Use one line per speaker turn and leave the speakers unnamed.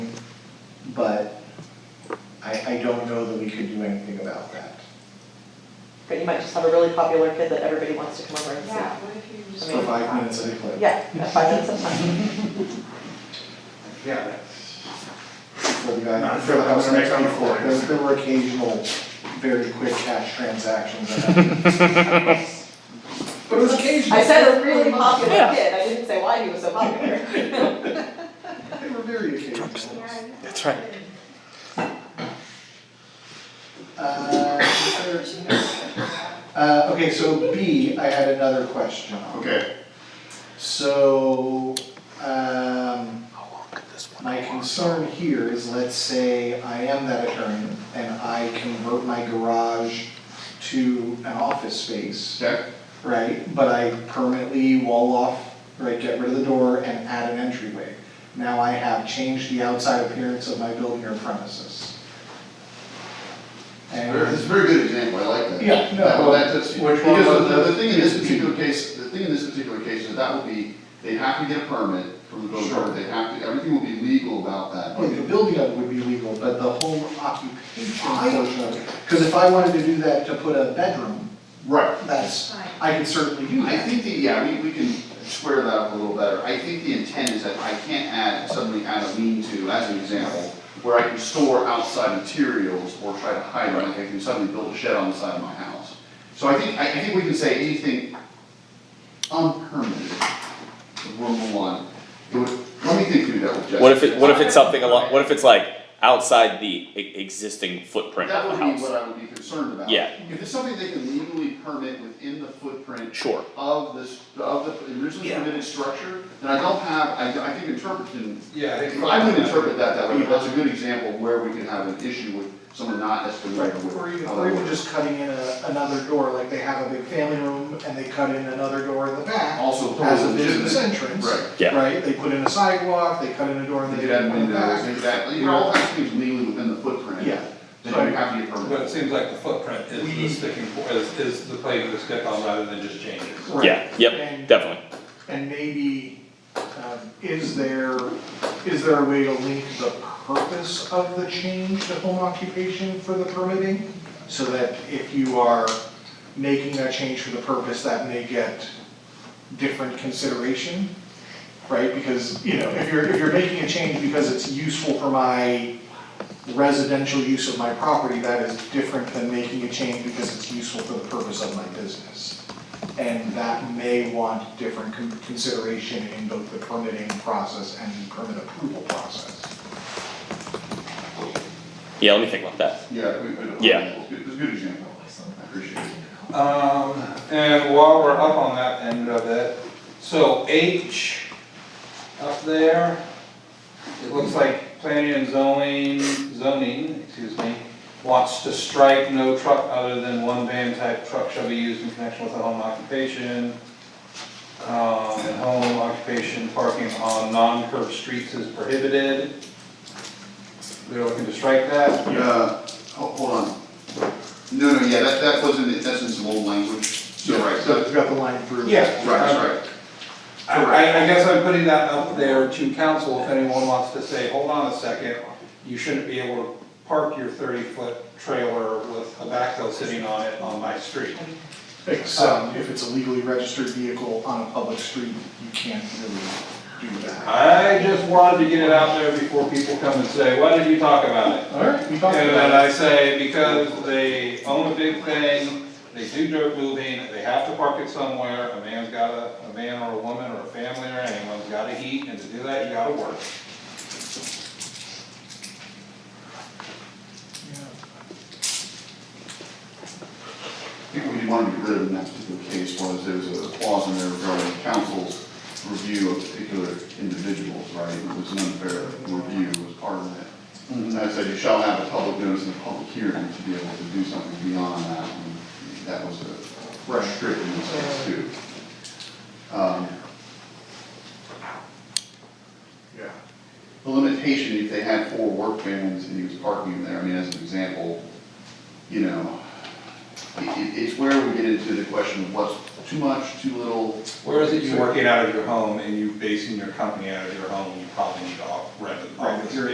but I, I don't know that we could do anything about that.
But you might just have a really popular kid that everybody wants to come over and
Yeah,
see.
what if you just.
For five minutes at a clip.
Yeah, at five minutes of time.
Yeah, that's,
for the guy,
Not
for the
sure
house
how many
next
times
door.
it
There,
is.
there were occasional, very quick cash transactions that happened. But it was occasional.
I said a really popular
Yeah.
kid, I didn't say why he was so popular.
They were very occasional.
That's right.
Uh, is there- Uh, okay, so B, I had another question on.
okay,
So, um, my concern here is, let's say I am that attorney and I convert my garage to an office space.
okay,
right? But I permanently wall off, right, get rid of the door and add an entryway. Now I have changed the outside appearance of my building or premises.
Very- it's
And,
a very good example, I like that.
Yeah, no,
That- well, that- that's-
which one
because
was
the- the
this?
thing in this particular case, the thing in this particular case is that would be, they have to get a permit from the building
Sure.
department, they have to, everything will be legal about that.
well, the building of it would be legal, but the home occupation portion of it, because if I wanted to do that to put a bedroom,
Right,
that's, I could certainly do
I
that.
think the, yeah, we, we can square that up a little better. I think the intent is that I can't add, suddenly add a lean-to, as an example, where I can store outside materials or try to hide, like I can suddenly build a shed on the side of my house. So I think, I, I think we can say anything unpermitted, number one. It would, let me think through that with Jessica.
What if it, what if it's something along, what if it's like outside the e- existing footprint
That
of
would
the
be what
house?
I would be concerned about.
Yeah.
If it's something they can legally permit within the footprint
Sure,
of this, of the originally
Yeah.
permitted structure, then I don't have, I, I think interpretation,
Yeah, I think.
I would interpret that that way, but that's a good example of where we can have an issue with someone not as familiar with.
Or even,
how
or
that
even
works.
just cutting in a, another door, like they have a big family room and they cut in another door in the back
Also,
as a
totally
business
legitimate.
entrance.
Right,
Yeah.
Right, they put in a sidewalk, they cut in a door and
they
they.
could add
put in the
windows,
back.
exactly, you know, all that things legally within the footprint.
Yeah.
Then you have to get
But it
permit.
seems like the footprint is the sticking, po- is, is the play to stick on rather than just changes.
Right.
yeah, yep,
And-
definitely.
And maybe, um, is there, is there a way to link the purpose of the change to home occupation for the permitting? So that if you are making that change for the purpose, that may get different consideration, right? Because, you know, if you're, if you're making a change because it's useful for my residential use of my property, that is different than making a change because it's useful for the purpose of my business and that may want different con- consideration in both the permitting process and the permit approval process.
Yeah, let me think about that.
Yeah, we, we.
Yeah.
It's good- it's a good example, I appreciate it.
Um, and while we're up on that end of it, so H up there, it looks like planning and zoning, zoning, excuse me, wants to strike no truck other than one van type truck shall be used in connection with a home occupation. Um, and home occupation parking on non-curb streets is prohibited. We're looking to strike that.
Uh, ho- hold on. No, no, yeah, that, that wasn't, it. that's in some old language, so, right,
So
so,
we've got the line through.
Yeah.
right, right.
I, I I guess I'm putting that up there to council, if anyone wants to say, hold on a second, you shouldn't be able to park your thirty-foot trailer with a backhoe sitting on it on my street.
Except Um, if it's a legally registered vehicle on a public street, you can't really do that.
I just wanted to get it out there before people come and say, why did you talk about it?
All right, we talked
And then
about
I
it.
say, because they own a big thing, they do dirt moving, they have to park it somewhere, a man's gotta, a man or a woman or a family or anyone's gotta heat, and to do that, you gotta work.
I think what we wanted to get rid of in that particular case was there was a clause in there regarding council's review of particular individuals, right? It was an unfair review was part of it. And I said, you shall have a public notice and a public hearing to be able to do something beyond that. And That was a restriction in this case too. Um,
Yeah.
The limitation, if they had four work vans and he was parking there, I mean, as an example, you know, i i it's where we get into the question of what's too much, too little.
Where is it you're working out of your home and you basing your company out of your home, you probably need to off- rent an
Right,
office.
you're-